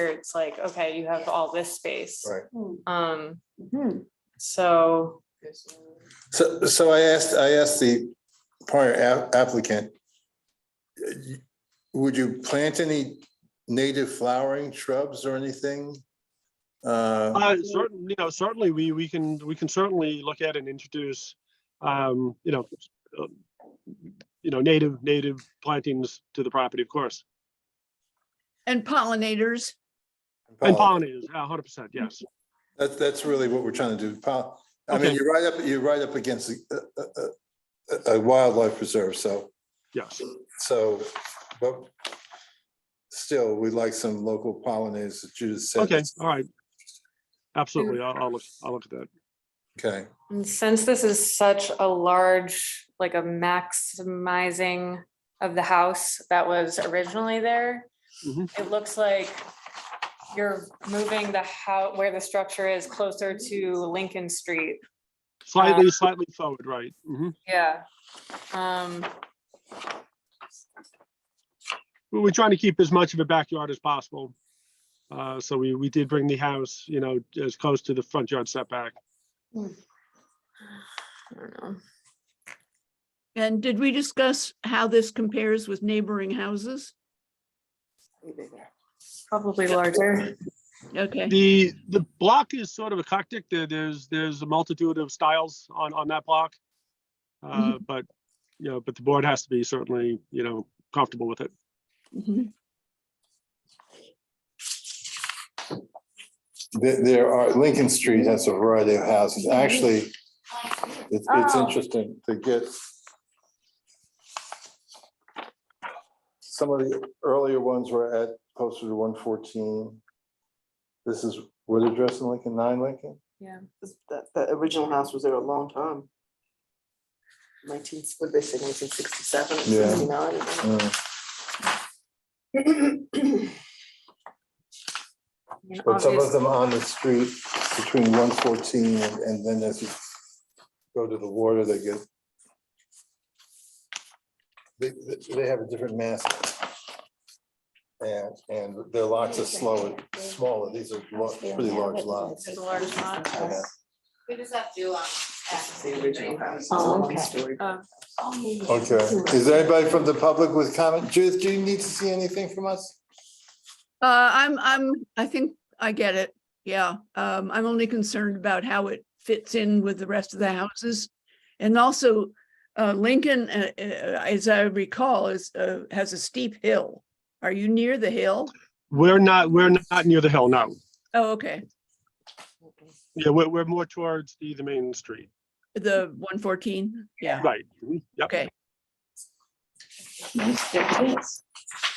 Here it's like, okay, you have all this space. Right. Um, so, So, so I asked, I asked the prior a- applicant, uh, y- would you plant any native flowering shrubs or anything? Uh, Uh, certain, you know, certainly we, we can, we can certainly look at and introduce, um, you know, uh, you know, native, native plantings to the property, of course, And pollinators, and Oh. pollinators, a hundred percent, yes. That's, that's really what we're trying to do. Pol- I mean, Okay. you're right up, you're right up against a- a- a, a wildlife preserve, so, Yes, so, but still, we like some local pollinators, as Judith said. okay, all right. Absolutely, I'll, I'll look, I'll look at that. Okay, and since this is such a large, like a maximizing of the house that was originally there, Mhm. Mm-hmm. it looks like you're moving the how, where the structure is closer to Lincoln Street. Slightly, slightly forward, right? hmm Yeah. Um, we we're trying to keep as much of a backyard as possible. Uh, so we, we did bring the house, you know, as close to the front yard setback. I don't know. and did we discuss how this compares with neighboring houses? Probably larger. Okay, The, the block is sort of eclectic. There, there's, there's a multitude of styles on, on that block. Uh, but, you know, but the board has to be certainly, you know, comfortable with it. Mhm. there, there are, Lincoln Street has a variety of houses, actually, it's, it's Oh. interesting to get some of the earlier ones were at, closer to one fourteen. This is, what address in Lincoln, nine Lincoln? This- That, that original house was there a long time. Nineteen, what did they say, nineteen sixty-seven, Yeah. sixty-nine? Mm. I mean, But some of obvious- them on the street between one fourteen and, and then as you go to the water, they get. They, they- they have a different mass. And, and their lots are slower, smaller. These are lo- pretty large lots. It's a large lot. Yeah. Who does that do on? It's the original house. it's a Oh, okay. one-story. Oh. Okay, is there anybody from the public with comment? Judith, do you need to see anything from us? uh, I'm, I'm, I think I get it, yeah. Um, I'm only concerned about how it fits in with the rest of the houses. And also, uh, Lincoln, uh, uh, as I recall, is, uh, has a steep hill. Are you near the hill? We're not, we're not near the hill, no. Oh, okay, Yeah, we're, we're more towards the, the main street. the one fourteen, yeah, Right. Mhm. Yep. okay.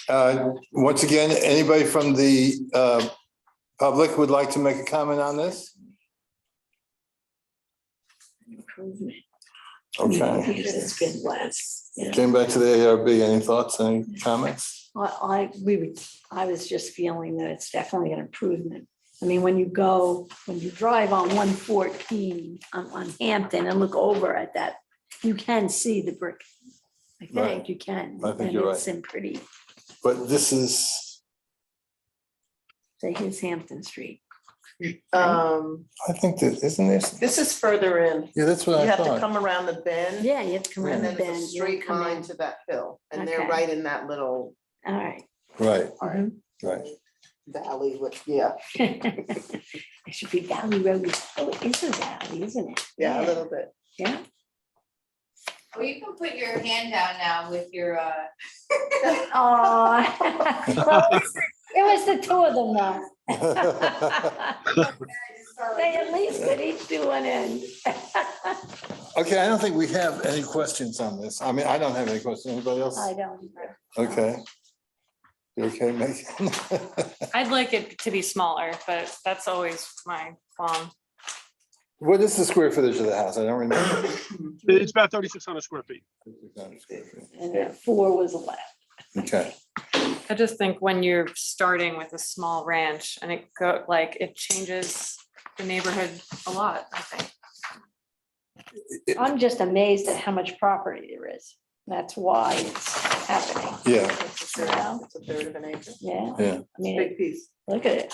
Uh, once again, anybody from the, uh, public would like to make a comment on this? Okay. It's been less. yeah. Came back to the ARB, any thoughts, any comments? Well, I, we would, I was just feeling that it's definitely an improvement. I mean, when you go, when you drive on one fourteen on, on Hampton and look over at that, you can see the brick. I Right. think you can. I think you're And it's in pretty, But this is, say, here's Hampton Street. Um, I think that, isn't this, this is further in. yeah, that's You what I have to thought. come around the bend. Yeah, you have to come around And the then bend. there's a you don't straight come line in. to that hill, and they're Okay. Mm-hmm. right in that little All right. Right, all right. right. valley with, yeah, It should be Valley Road. Oh, it is a valley, isn't it? yeah, a little bit. Yeah. Well, you can put your hand down now with your, uh. Aw. Well, It was- it was the two of them though. They at least did each do one end. Okay, I don't think we have any questions on this. I mean, I don't have any questions. Anybody else? I don't. either. Okay. You okay, Megan? I'd like it to be smaller, but that's always my qualm. What is the square footage of the house? I don't remember. It's about thirty-six hundred square feet. And then four was left. Okay, I just think when you're starting with a small ranch and it go, like, it changes the neighborhood a lot, I think. I'm just amazed at how much property there is. That's why it's happening, Yeah. It's a third- it's a third of an acre. yeah. Yeah. I mean, Big piece. look at it.